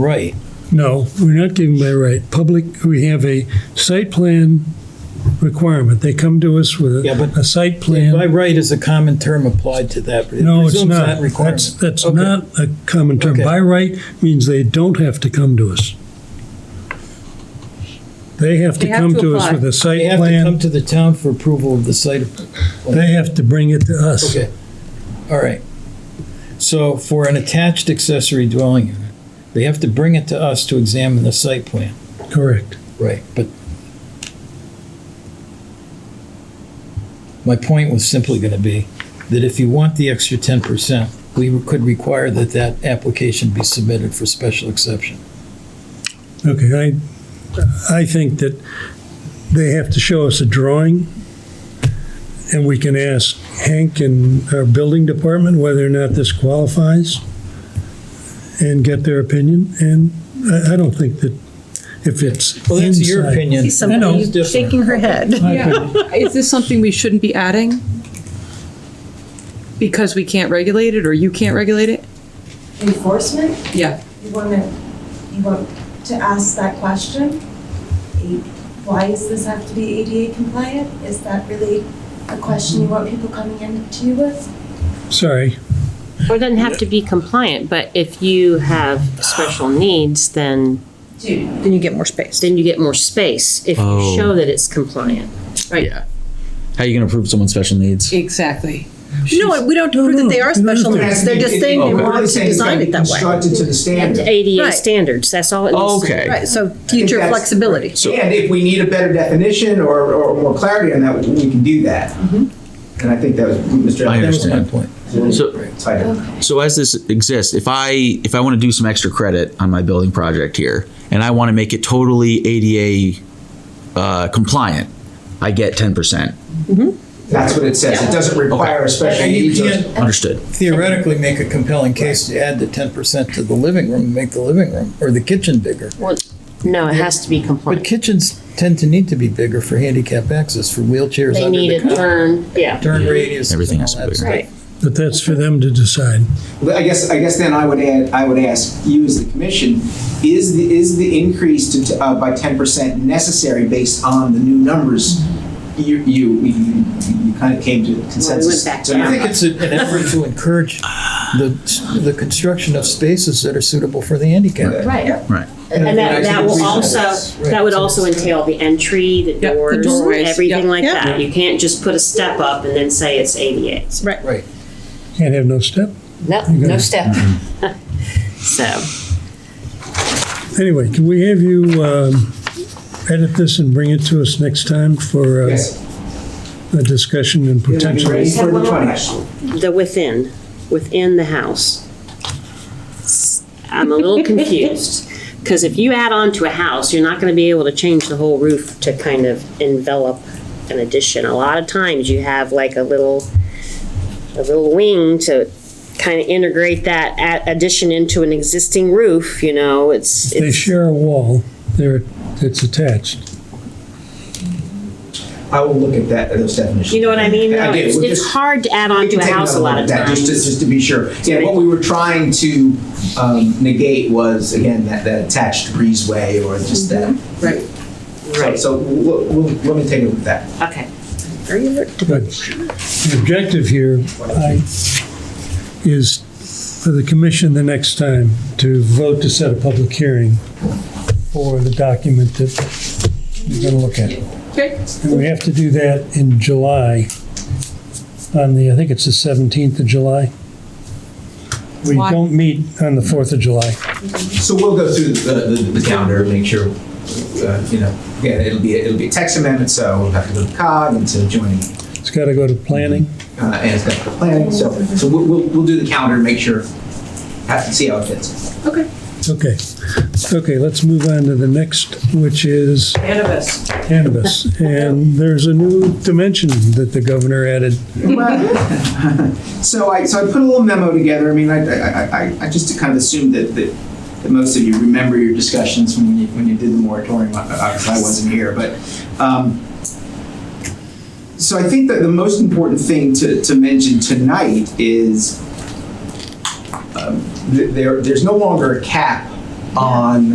right. No, we're not giving by right. Public, we have a site plan requirement. They come to us with Yeah, a but- a site By plan. right is a common term applied to that. but it No, it's presumes not. that requirement. That's, that's Okay. not a common term. Okay. By right means they don't have to come to us. They have to They have come to to us apply. with a They site have to come plan. to the town for approval of the site. They have to bring it to us. Okay, all right. So for an attached accessory dwelling unit, they have to bring it to us to examine the site plan. Correct. Right. But my point was simply going to be that if you want the extra ten percent, we could require that that application be submitted for special exception. Okay, I, I think that they have to show us a drawing, and we can ask Hank and our building department whether or not this qualifies, and get their opinion, and I, I don't think that if it's Well, that's your inside- opinion. See somebody It's different. shaking her head. My opinion. Yeah, is this something we shouldn't be adding? Because we can't regulate it, or you can't regulate it? Enforcement, Yeah. you want to, you want to ask that question? A- Why does this have to be ADA compliant? Is that really a question you want people coming in to you with? Sorry, Or it doesn't have to be compliant, but if you have special needs, then, Dude. Then you get more space. then you get more space if Oh. you show that it's compliant. Right? Yeah. How are you going to prove someone's special needs? Exactly. No, we don't prove that they are No, no, special no. needs. They're just saying they Okay. wanted to design it that way. Constructed to the And standard. ADA Right. standards, that's all it needs to be. Okay. Right, so future that's- flexibility. And if we need a better definition or, or more clarity on that, we can do that. Mm-hmm. And I think that was Mr. I That was my understand. point. So, Tighter. so as this exists, if I if I want to do some extra credit on my building project here, and I want to make it totally ADA uh, compliant, I get ten percent. That's what it says. It doesn't require a special And you needs. or- can't Understood. theoretically make a compelling case to add the ten percent to the living room and make the living room or the kitchen bigger. Well, No, it has to be But compliant. kitchens tend to need to be bigger for handicap access for wheelchairs They under need the a car. turn, yeah. Turn radius and all Everything has to be that bigger. stuff. Right. but that's for them to decide. But I guess, I guess then I would add, I would ask you as the commission, is the, is the increase to, uh, by ten percent necessary based on the new numbers? Mm-hmm. You, you, you, you kind of came to consensus. back So I you're- think it's a- an effort to encourage the, the construction of spaces that are suitable for the handicap. Right. Right. And that, that will also, Right. that would also entail the entry, the the doors, doorways, everything yeah. like Yeah. that. You can't just put a step up and then say it's ADA. Right. Right. Can't have no step. No, no step. So. Anyway, can we have you um, edit this and bring it to us next time for uh, Yes. a discussion and It'll be potential? ready for the 20th. the within, within the house. I'm a little confused, because if you add on to a house, you're not gonna be able to change the whole roof to kind of envelop an addition. A lot of times you have like a little, a little wing to kind of integrate that a- addition into an existing roof, you know, it's. They it's- share a wall, they're, it's attached. I will look at that, those definitions. You know what I mean? I though? do. It's We'll it's just- hard to add on We to can a take house a another lot look of at that, times. Just, to- just to be sure. Yeah, what we were trying to um, negate was, again, that, that attached breezeway or just that. Mm-hmm. Right. Right. So we'll, we'll, let me take a look at that. Okay. Very alert. But the objective here I- is for the commission the next time to vote to set a public hearing for the document that you're going to look at. Okay. And we have to do that in July, on the, I think it's the 17th of July. We Why? don't meet on the 4th of July. So we'll go through the, the, the calendar, make sure, uh, you know, yeah, it'll be, it'll be a text amendment, so we'll have to go to COG and to joining, It's got to go to planning. uh, and it's got the planning, so, so we'll, we'll, we'll do the calendar, make sure, have to see how it fits. Okay. Okay, let's move on to the next, which is Cannabis. cannabis. And there's a new dimension that the governor added. Well, so I so I put a little memo together. I mean, I I, I- I, I just kind of assumed that, that that most of you remember your discussions when you when you did the moratorium. Obviously, I wasn't here, but. Um, so I think that the most important thing to, to mention tonight is um, th- there there's no longer a cap on